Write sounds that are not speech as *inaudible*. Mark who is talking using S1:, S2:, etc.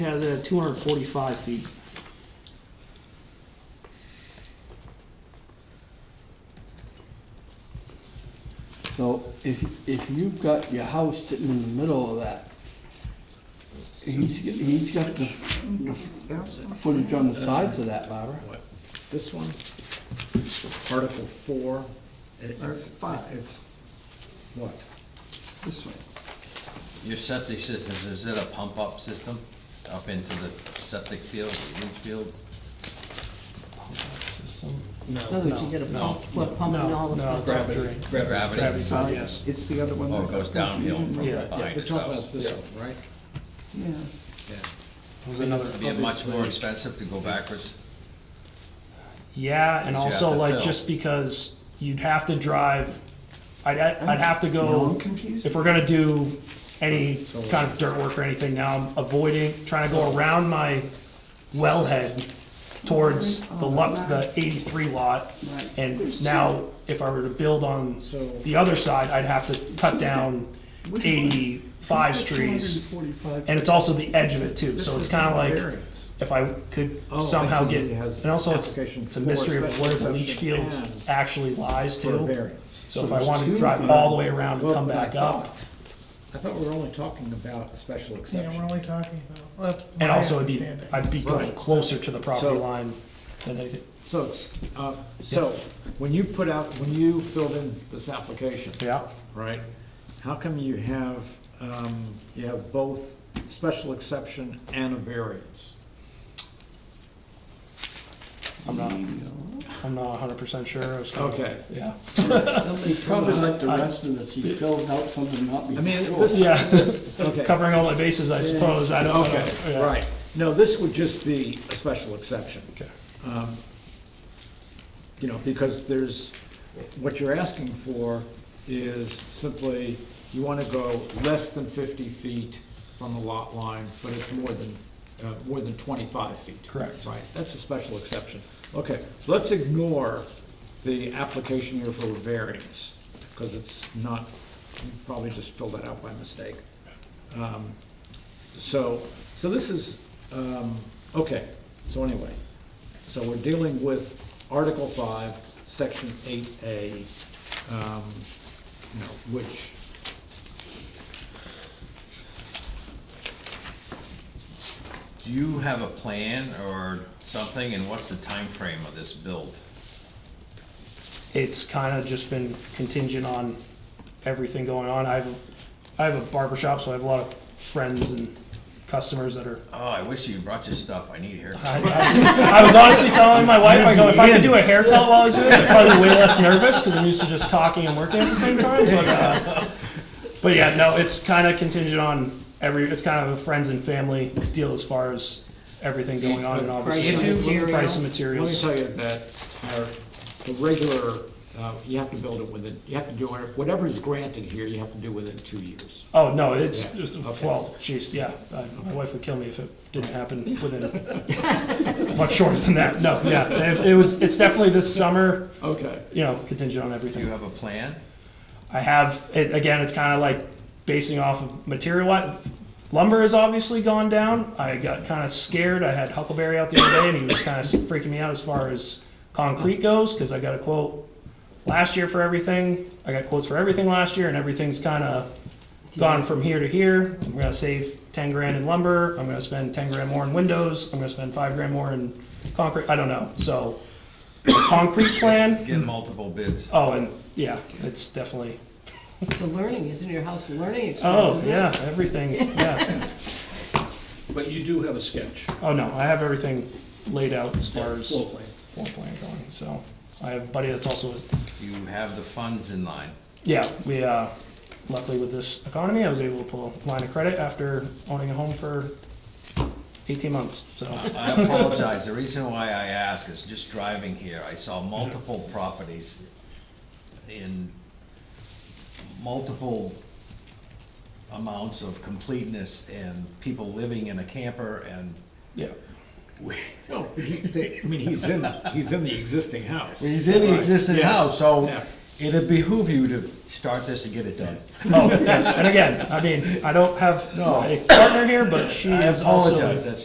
S1: has it at two hundred forty-five feet.
S2: So if, if you've got your house sitting in the middle of that, he's, he's got the, the footage on the sides of that, Barbara.
S3: This one, Article four. it- it's-
S4: Article five.
S3: It's, what?
S4: This way.
S5: Your septic systems, is it a pump-up system up into the septic field, leach field?
S2: No, you get a pump.
S6: We're pumping all the stuff. to the drain.
S5: Gravity?
S4: So It's the other one.
S5: Oh,
S4: that
S5: it goes
S4: got
S5: downhill
S4: confusion
S5: from
S4: from-
S1: Yeah,
S5: behind
S3: We're
S5: its
S3: talking
S5: house,
S3: about this one, right?
S4: Yeah,
S1: Was another.
S5: Be it much more expensive to go backwards?
S1: Yeah, and
S5: you
S1: also
S5: have to
S1: like
S5: fill.
S1: just because you'd have to drive, I'd, I'd I'd have to
S4: now
S1: go,
S4: I'm confused.
S1: if we're gonna do any kind of dirt work or anything now, I'm avoiding, trying to go around my wellhead towards the lot, the eighty-three lot.
S4: Right.
S1: And now, if I were to build on
S3: So-
S1: the other side, I'd have to cut down
S4: Which one?
S1: eighty-five trees. And it's also the edge of it too, so it's kinda like, if I could
S3: Oh, I
S1: somehow
S3: see.
S1: get,
S3: It has
S1: and also it's,
S3: application
S1: it's a
S3: for
S1: mystery of
S3: special
S1: where the
S3: exception
S1: leach field
S3: and
S1: actually lies
S3: For a
S1: to.
S3: variance.
S1: So if
S2: So
S1: I
S2: there's
S1: wanted
S2: two
S1: to drive
S2: then.
S1: all the way around and
S3: Well,
S1: come
S3: but I
S1: back up,
S3: thought- I thought we were only talking about a special
S6: Yeah, we're
S3: exception.
S6: only talking about, well, that's my
S1: and also it'd be,
S6: understanding.
S1: I'd be going
S3: Right.
S1: closer to the property
S3: So-
S1: line than anything.
S3: So, it's, uh, so, when you put out, when you filled in this application.
S1: Yeah,
S3: Right, how come you have, um, you have both special exception and a variance?
S1: I'm not, I'm not hundred percent sure. I was kinda-
S3: Okay.
S1: Yeah,
S2: He probably like the rest of this, he filled out something not
S3: I mean,
S2: before.
S3: this,
S1: yeah, *laughs*
S3: okay.
S1: covering all my bases, I suppose, I don't know.
S3: Okay,
S1: Yeah.
S3: right. No, this would just be a special exception.
S1: Okay.
S3: Um, You know, because there's, what you're asking for is simply, you want to go less than fifty feet from the lot line, but it's more than, uh, more than twenty-five feet.
S1: Correct.
S3: Right, that's a special exception. Okay, so let's ignore the application here for a variance, because it's not, you probably just filled that out by mistake. Um, so, so this is, um, okay, so anyway, so we're dealing with Article five, Section eight A, um, you know, which.
S5: Do you have a plan or something, and what's the time frame of this build?
S1: it's kind of just been contingent on everything going on. I have, I have a barber shop, so I have a lot of friends and customers that are.
S5: Oh, I wish you brought your stuff, I need hair.
S1: I, I, was, I was honestly telling my wife, I go, if I could do a haircut while I was doing this, I'd probably be way less nervous because I'm used to just talking and working at the same time. But, uh, but yeah, no, it's kind of contingent on every. It's kind of a friends and family deal as far as everything going on and obviously
S6: Price
S1: price of
S3: Let
S6: of material.
S3: me
S1: materials.
S3: tell you that, our, the regular, uh, you have to build it within, you have to do, it- whatever is granted here, you have to do within two years.
S1: Oh, no, it's,
S3: Yeah,
S1: it's-
S3: okay.
S1: well, geez, yeah, I- my wife would kill me if it didn't
S3: *laughs*
S1: happen within, much shorter than that, no, yeah. It it was, it's definitely this summer,
S3: Okay,
S1: you know, contingent on
S5: Do you
S1: everything.
S5: have a plan?
S1: I have, it, again, it's kind of like basing off of material, I- lumber has obviously gone down. I got kind of scared, I had Huckleberry out the other day and he was kind of freaking me out as far as concrete goes, because I got a quote last year for everything, I got quotes for everything last year and everything's kind of gone from here to here. I'm gonna save ten grand in lumber, I'm gonna spend ten grand more in windows, I'm gonna spend five grand more in concrete, I don't know, so. Concrete plan,
S5: Get multiple bids.
S1: oh, and, yeah, it's definitely,
S6: It's a learning, isn't your house a learning experience?
S1: oh,
S6: isn't it?
S1: yeah, everything, yeah,
S7: *laughs* But you do have a sketch,
S1: oh, no, I have everything laid out as far as
S7: floor
S1: floor
S7: plan.
S1: plan going, so. I have a buddy that's also,
S5: You have the funds in line.
S1: yeah, we, uh, luckily with this economy, I was able to pull a line of credit after owning a home for eighteen months, so.
S5: I apologize, the reason why I ask is just driving here, I saw multiple properties in multiple amounts of completeness and people living in a camper and
S7: *laughs*
S1: Yeah.
S3: no, he- they- I mean, he's in, he's in the existing house.
S5: He's in the existing
S3: Yeah.
S5: house, so
S3: Yeah.
S5: It'd behoove you to start this and get it done.
S1: Oh, yes, and again, I mean, I don't have my partner here, but she
S5: I
S1: is also.
S5: apologize, that's